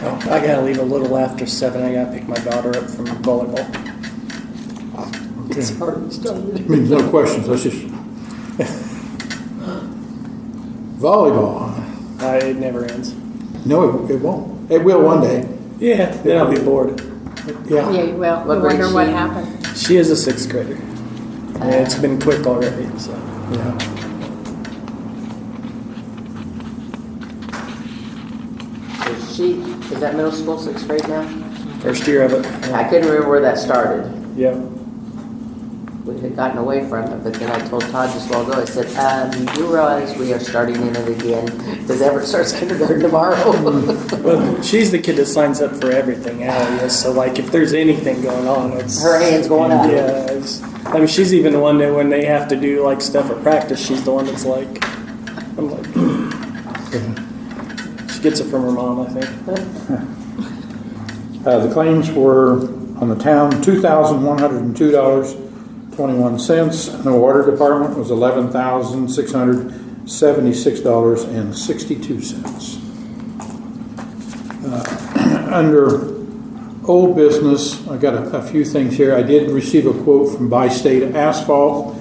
Oh, I gotta leave a little after seven. I gotta pick my daughter up from volleyball. It's hard I mean, no questions, let's just. Volleyball, I, Uh, it never ends. no, it, it won't, it will one day, Yeah, then I'll be bored. yeah. Yeah, well, What you grade wonder she what in? happened. She is a sixth grader. And it's been quick already, so. yeah. Is she, is that middle school, sixth grade now? First year of it. I Yeah. couldn't remember where that started. Yeah. We had gotten away from it, but then I told Todd just a while ago, I said, um, you do realize we are starting in it again, because Everett starts kindergarten tomorrow. Well, she's the kid that signs up for everything, Allie is. So, like, if there's anything going on, it's. Her hand's going up. Yeah. It's, I mean, she's even the one that when they have to do, like, stuff at practice, she's the one that's like, I'm like, she gets it from her mom, I think. Uh, the claims were on the town, two thousand one hundred and two dollars, twenty-one cents, and the water department was eleven thousand six hundred seventy-six dollars and sixty-two cents. Uh, Under old business, I got a, a few things here. I did receive a quote from Bi-State Asphalt.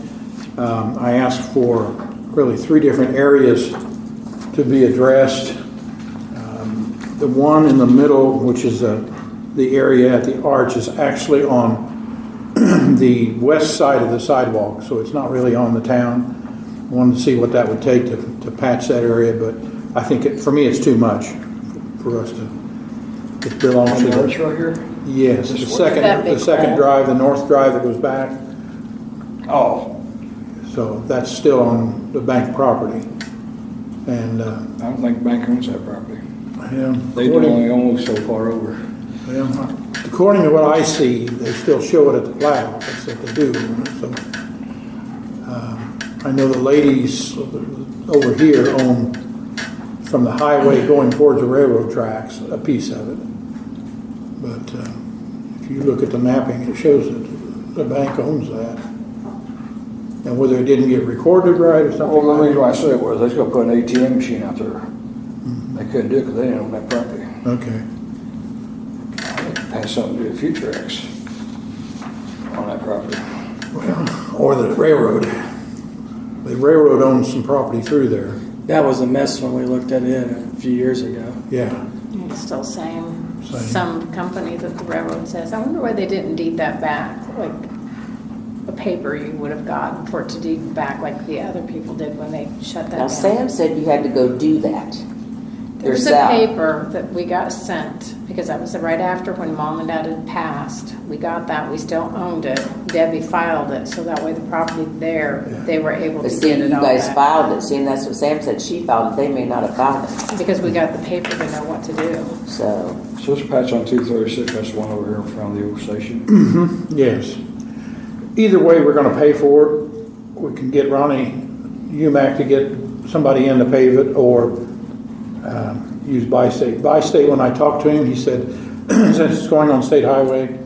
Um, I asked for really three different areas to be addressed. Um, The one in the middle, which is uh, the area at the arch, is actually on the west side of the sidewalk, so it's not really on the town. Wanted to see what that would take to, to patch that area, but I think, it- for me, it's too much for us to, it belongs to the. Yes, the second, That big the second hole. drive, the north drive that goes back, Oh, so that's still on the bank property. And, uh, I don't think the bank owns that property. yeah, They according- only own so far over. yeah, according to what I see, they still show it at the plow, that's what they do, so. um, I know the ladies over here own, from the highway going towards the railroad tracks, a piece of it. But uh, if you look at the mapping, it shows that the bank owns that. And whether it didn't get recorded right or something Well, the like reason that. why I said it was, they still put an ATM machine out there. They couldn't do it because they didn't own that property. Okay, I think it Has something to do with future acts on that property. well, or the railroad. The railroad owns some property through there, That was a mess when we looked at it a few years ago. yeah. It's still same, Same. some company that the railroad says, I wonder why they didn't deed that back, like a paper you would have gotten for it to deed back like the other people did when they shut Now, that down. Sam said you had to go do that There's a yourself. paper that we got sent, because that was right after when mom and dad had passed. We got that, we still owned it. Debbie filed it, so that way the property there, they were able to But see, get you it all guys back. filed it, see, and that's what Sam said, she filed it, they may not have filed it, Because we got the paper to know what to do. so. So this patch on two thirty-six, that's the one over here in front of the old station. Yes. Either way, we're gonna pay for it. We can get Ronnie UMAC to get somebody in to pave it or um, use Bi-State. Bi-State, when I talked to him, he said, since it's going on state highway,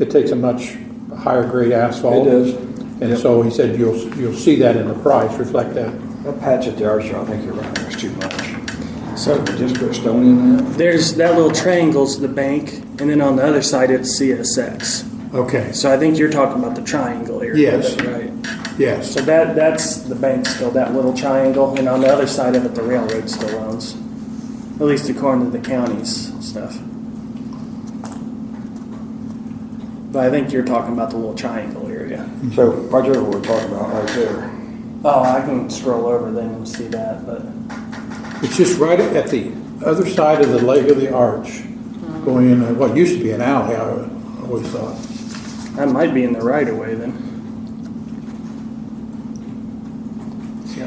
it takes a much higher grade asphalt. It does. And so he said, you'll, you'll see that in the price, reflect that. That patch at the arch, I think you're right, that's too much. So We just put stone in that. there's that little triangle's the bank, and then on the other side it's CSX. Okay, So I think you're talking about the triangle area. Yes. Right. yes. So that that's the bank still, that little triangle, and on the other side of it, the railroad still owns, at least according to the county's stuff. But I think you're talking about the little triangle area. So right there, what we're talking about right there. Oh, I can scroll over then and see that, but It's just right at the other side of the leg of the arch, going in, uh, what used to be an alley, I always thought. that might be in the right of way then.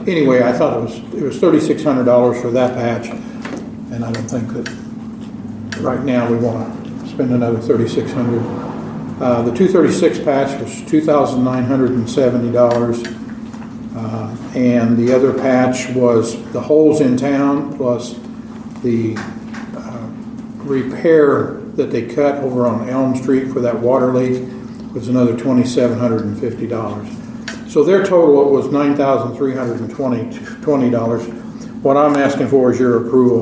Anyway, I thought it was, it was thirty-six hundred dollars for that patch, and I don't think that, right now, we wanna spend another thirty-six hundred. Uh, the two thirty-six patch was two thousand nine hundred and seventy dollars. uh, And the other patch was the holes in town plus the uh, repair that they cut over on Elm Street for that water leak was another twenty-seven hundred and fifty dollars. So their total was nine thousand three hundred and twenty, twenty dollars. What I'm asking for is your approval